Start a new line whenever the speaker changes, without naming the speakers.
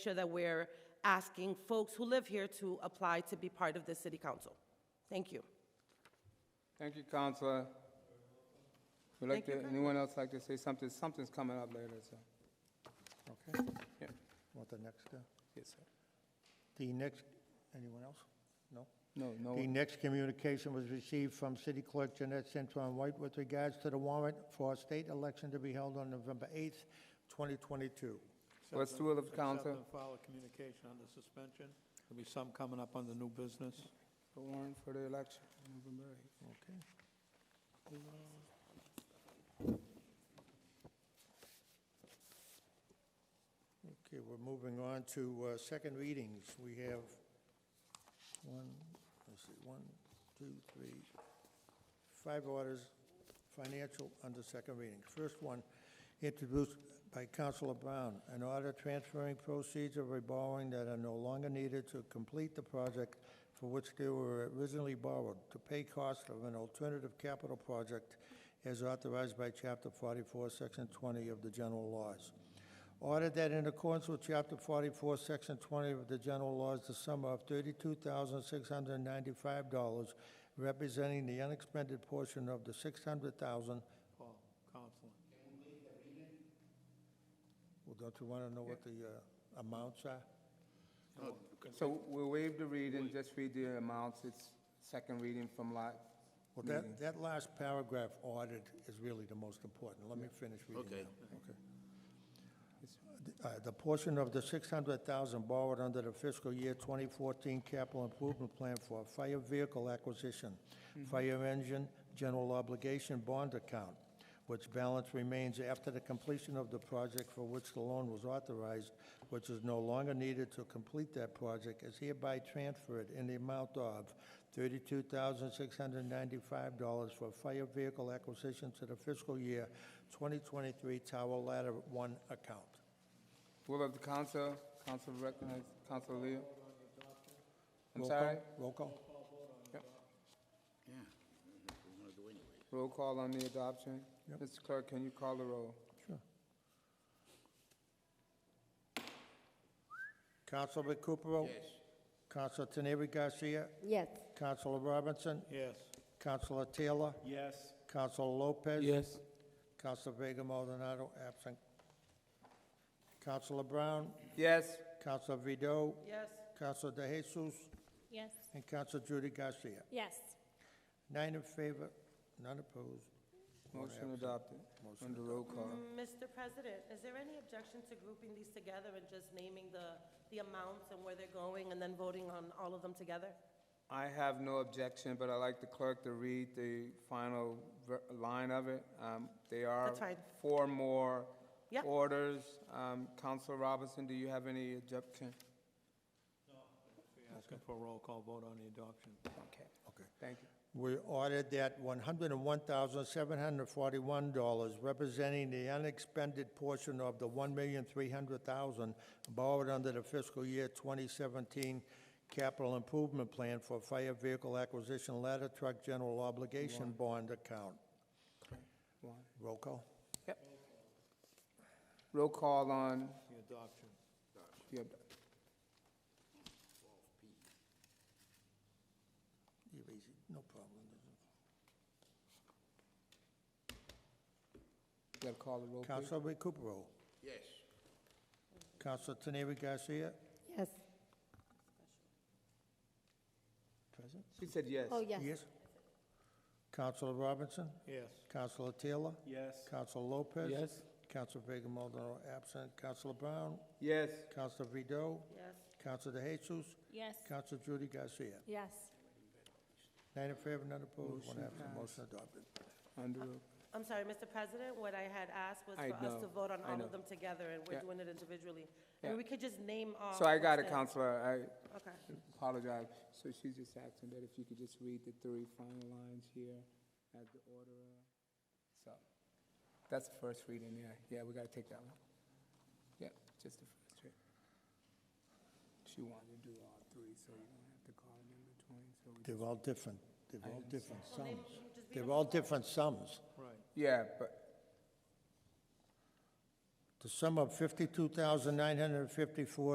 sure that we're asking folks who live here to apply to be part of the city council. Thank you.
Thank you, Counselor. Would like
Thank you,
to, anyone else like to say something? Something's coming up later, so,
Okay,
yeah,
want the next, uh,
yes, sir.
the next, anyone else? No?
No, no,
The next communication was received from City Clerk Jeanette Santon White with regards to the warrant for a state election to be held on November 8th, 2022.
What's the will of the council?
Accept and file a communication under suspension. There'll be some coming up on the new business.
The warrant for the election, November eighth.
Okay. Okay, we're moving on to uh, second readings. We have one, let's see, one, two, three, five orders, financial under second reading. First one, introduced by Councilor Brown, an order transferring proceeds of a borrowing that are no longer needed to complete the project for which they were originally borrowed to pay costs of an alternative capital project as authorized by Chapter 44, Section 20 of the general laws. Order that in accordance with Chapter 44, Section 20 of the general laws, the sum of $32,695 representing the unexpended portion of the 600,000.
Paul, Counselor.
Well, don't you want to know what the uh, amounts are?
Oh,
So we'll waive the reading, just read the amounts, it's second reading from lot.
Well, that, that last paragraph, ordered, is really the most important. Let me finish reading now.
Okay.
Okay. Uh, The portion of the 600,000 borrowed under the fiscal year 2014 capital improvement plan for fire vehicle acquisition, fire engine, general obligation bond account, which balance remains after the completion of the project for which the loan was authorized, which is no longer needed to complete that project, is hereby transferred in the amount of $32,695 for fire vehicle acquisition to the fiscal year 2023 Tower Ladder 1 account.
Will of the council, council recognize, Council Leo? I'm
Roll call-
sorry,
Roll call.
Yeah, that's what we want to do anyway.
roll call on the adoption. Mr. Clerk, can you call the roll?
Sure. Councilman Recupero?
Yes.
Council Teneri Garcia?
Yes.
Councilor Robinson?
Yes.
Councilor Taylor?
Yes.
Councilor Lopez?
Yes.
Councilor Vega Maldonado, absent. Councilor Brown?
Yes,
Councilor Vido?
Yes.
Councilor De Jesus?
Yes.
And Councilor Judy Garcia.
Yes.
Nine in favor, none opposed.
motion adopted, under roll call.
Mr. President, is there any objection to grouping these together and just naming the, the amounts and where they're going and then voting on all of them together?
I have no objection, but I'd like the clerk to read the final ver- line of it. Um, There are
That's fine.
four more
Yep.
orders. Um, Counsel Robinson, do you have any objection?
Asking for a roll call vote on the adoption.
Okay,
Okay.
thank you.
We ordered that one hundred and one thousand, seven hundred and forty-one dollars, representing the unexpended portion of the one million, three hundred thousand borrowed under the fiscal year twenty seventeen capital improvement plan for fire vehicle acquisition ladder truck general obligation bond account.
One.
Roll call.
Yep. Roll call on
The adoption.
the ob-
You're easy. No problem.
You gotta call the roll, please.
Counsel Recupero.
Yes.
Counsel Teneri Garcia.
Yes.
Present.
She said yes.
Oh, yes.
Yes. Counselor Robinson.
Yes.
Counselor Taylor.
Yes.
Counselor Lopez.
Yes.
Counselor Vega Maldonado absent. Counselor Brown.
Yes,
Counselor Vido.
Yes.
Counselor De Jesus.
Yes.
Counselor Judy Garcia.
Yes.
Nine in favor, none opposed, one
Motion
absent. Motion adopted.
Uh,
under, roll.
I'm sorry, Mr. President, what I had asked was
I
for us to
know,
vote on
I
all
know.
of them together and
Yeah.
we're doing it individually.
Yeah.
And we could just name off.
so I got it,
what's there.
Counselor,
Okay.
I apologize. So she's just asking that if you could just read the three final lines here as the order. uh, So, that's the first reading, yeah, yeah, we gotta take that one. Yep, just the first read. She wanted to do all three, so you don't have to call them in between, so we.
They're all different, they're all different
Well, name-
sums.
just read
They're
them
all different sums.
Right.
Yeah, but,
The sum of fifty-two thousand, nine hundred and fifty-four